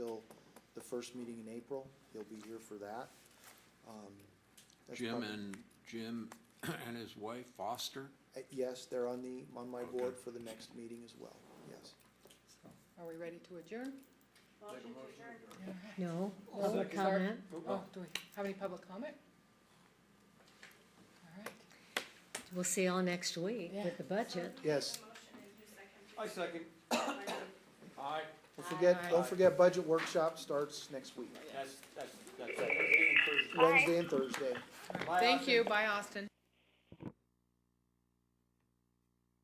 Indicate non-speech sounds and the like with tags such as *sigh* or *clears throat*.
first meeting in April, he'll be here for that. Um, that's Jim probably- and, Jim *clears throat* and his wife Foster, Uh, Yes, they're on the, on my Okay. board for the next meeting as well, yes. Are we ready to adjourn? No, Oh, public is our- comment. Oh, do we have any public comment? All right. We'll see y'all next week Yeah. with the budget. Yes, I second. Aye, don't forget, don't Aye. forget, budget workshop starts next week, that's, that's, that's. Wednesday and Thursday. Thank you, bye, Austin.